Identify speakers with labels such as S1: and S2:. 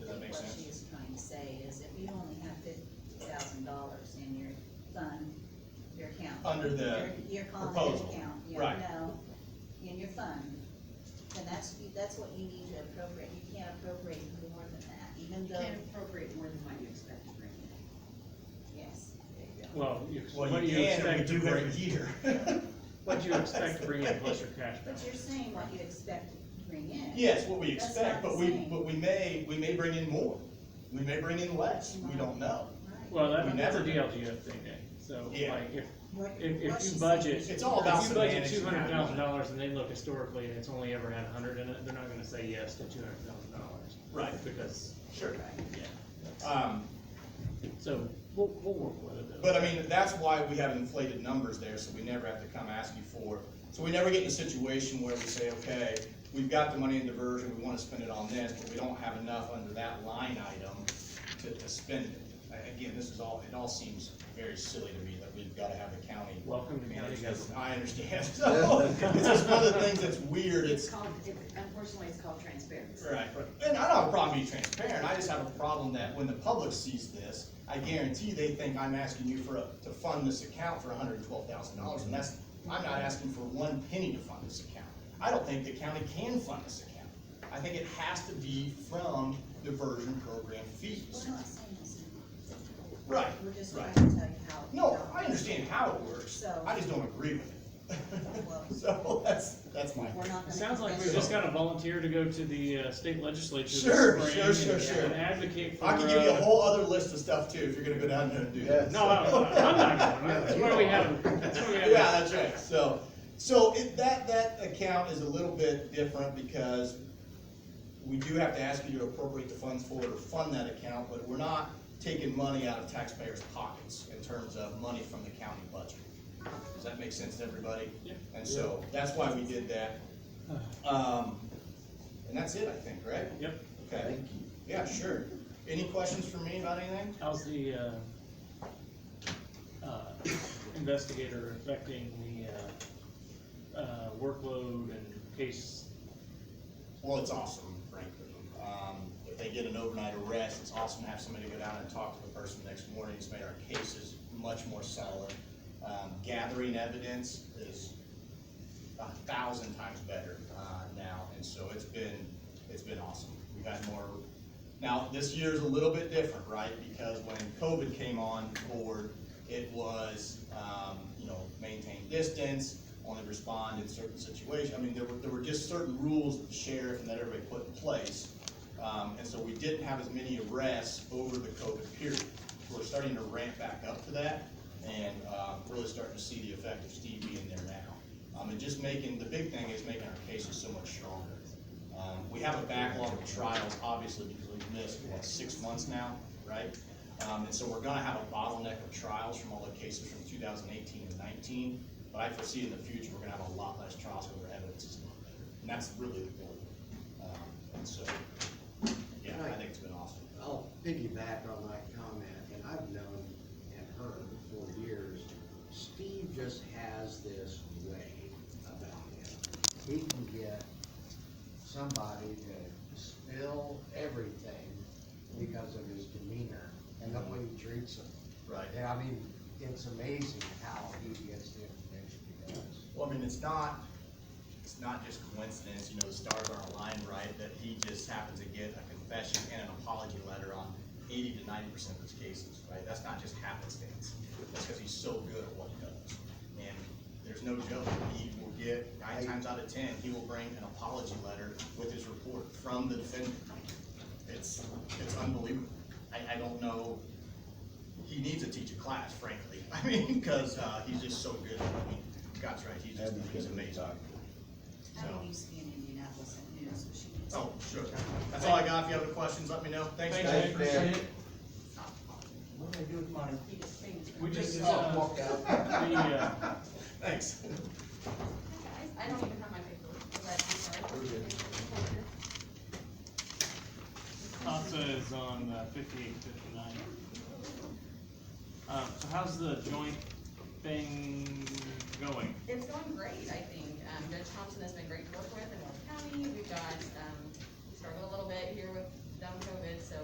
S1: under the,
S2: Your college
S1: proposal,
S2: account, you
S1: right.
S2: know, in your fund. And that's, that's what you need to appropriate, you can't appropriate more than that, even
S3: You
S2: though,
S3: can't appropriate more than what you expect to bring in.
S2: yes, there you go.
S4: Well, you-
S1: well,
S4: what
S1: you
S4: you
S1: can, but
S4: expect
S1: you
S4: to
S1: do
S4: bring,
S1: every year.
S4: what you expect to bring in plus your cash
S2: But
S4: balance.
S2: you're saying what you expect to bring in.
S1: Yes, what we
S2: That's
S1: expect, but
S2: not the
S1: we,
S2: same.
S1: but we may, we may bring in more, we may bring in less, we don't know.
S2: Right.
S4: Well,
S1: We
S4: that- that's a
S1: never-
S4: DLGF thing, Dave. So
S1: Yeah.
S4: like if,
S2: What-
S4: if- if
S2: what
S4: you
S2: she's
S4: budget-
S2: saying is
S1: It's all
S2: not-
S1: about
S4: if you budget
S1: semantics
S4: two
S1: and how
S4: hundred
S1: you-
S4: thousand dollars and they look historically and it's only ever had a hundred in it, they're not gonna say yes to two hundred thousand dollars.
S1: Right.
S4: Because,
S1: Sure.
S4: yeah,
S1: Um,
S4: so we'll, we'll work with it though.
S1: But I mean, that's why we have inflated numbers there, so we never have to come ask you for, so we never get in a situation where we say, okay, we've got the money in diversion, we wanna spend it on this, but we don't have enough under that line item to, to spend it. A- Again, this is all, it all seems very silly to me that we've gotta have the county.
S4: Welcome to county
S1: manage this.
S4: government.
S1: I understand, so, it's just one of the things that's weird,
S3: It's
S1: it's,
S3: called, it- unfortunately, it's called transparency.
S1: Right, and I don't have a problem being transparent, I just have a problem that when the public sees this, I guarantee they think I'm asking you for, a- to fund this account for hundred and twelve thousand dollars, and that's, I'm not asking for one penny to fund this account. I don't think the county can fund this account. I think it has to be from diversion program fees.
S2: We're not saying this. in-
S1: Right,
S2: We're just trying
S1: right.
S2: to tell you how.
S1: No, I understand how it works,
S2: So- Oh,
S1: I just don't agree with
S2: Well-
S1: it. So that's, that's my.
S2: We're not gonna.
S4: It sounds like
S2: convince
S4: we
S2: you.
S4: just gotta volunteer to go to the uh, state legislature this
S1: Sure,
S4: spring
S1: sure, sure,
S4: and-
S1: sure.
S4: and advocate for.
S1: I can give you a
S4: uh,
S1: whole other list of stuff too, if you're gonna go down there and do that.
S4: No, I- I- I'm not going, that's where we have, that's where we have.
S1: Yeah, that's right, so, so it, that, that account is a little bit different because we do have to ask you to appropriate the funds for it or fund that account, but we're not taking money out of taxpayers' pockets in terms of money from the county budget. Does that make sense to everybody?
S4: Yeah.
S1: And so, that's why we did that. Um, and that's it, I think, right?
S4: Yep,
S1: Okay, yeah, sure. Any questions for me about anything?
S4: how's the, uh, uh, investigator affecting the, uh, uh, workload and case?
S1: Well, it's awesome, frankly. Um, if they get an overnight arrest, it's awesome to have somebody go down and talk to the person next morning. It's made our cases much more solid. Um, gathering evidence is a thousand times better, uh, now, and so it's been, it's been awesome. We've had more, now, this year's a little bit different, right? Because when COVID came on board, it was, um, you know, maintain distance, only respond in certain situations. I mean, there were, there were just certain rules that the sheriff and that everybody put in place. Um, and so we didn't have as many arrests over the COVID period. We're starting to ramp back up to that and, uh, really starting to see the effect of Steve being there now. Um, and just making, the big thing is making our cases so much stronger. Um, we have a backlog of trials, obviously, because we've missed, what, six months now, right? Um, and so we're gonna have a bottleneck of trials from all the cases from two thousand eighteen and nineteen, but I foresee in the future, we're gonna have a lot less trials where our evidence is a lot better, and that's really the goal. Um, and so, yeah, I think it's been awesome.
S5: I'll piggyback on my comment, and I've known and heard for years, Steve just has this way about him. He can get somebody to spill everything because of his demeanor and the way he treats them.
S1: Right.
S5: And I mean, it's amazing how he gets the information he does.
S1: Well, I mean, it's not, it's not just coincidence, you know, the stars aren't aligned right, that he just happens to get a confession and an apology letter on eighty to ninety percent of his cases, right? That's not just happenstance, that's because he's so good at what he does. And there's no joke, he will get, nine times out of ten, he will bring an apology letter with his report from the defendant. It's, it's unbelievable. I, I don't know, he needs to teach a class, frankly. I mean, because uh, he's just so good. I mean, God's right, he's just he's amazing.
S2: I used to be in Indianapolis at noon, so she. was-
S1: Oh, sure. That's all I got. If you have any questions, let me know. Thanks,
S4: Thanks,
S1: guys.
S4: Dave. Appreciate it.
S6: What do I do with mine?
S2: You just sing.
S4: We just,
S6: Oh,
S4: uh,
S6: walk
S4: the,
S6: out.
S4: uh,
S1: Thanks.
S7: I don't even have my paperwork, but I'm sorry.
S4: Casa is on uh, fifty-eight, fifty-nine. Um, so how's the joint thing going?
S7: It's going great, I think. Um, Judge Thompson has been great to work with in North County. We've got, um, we struggled a little bit here with dumb COVID, so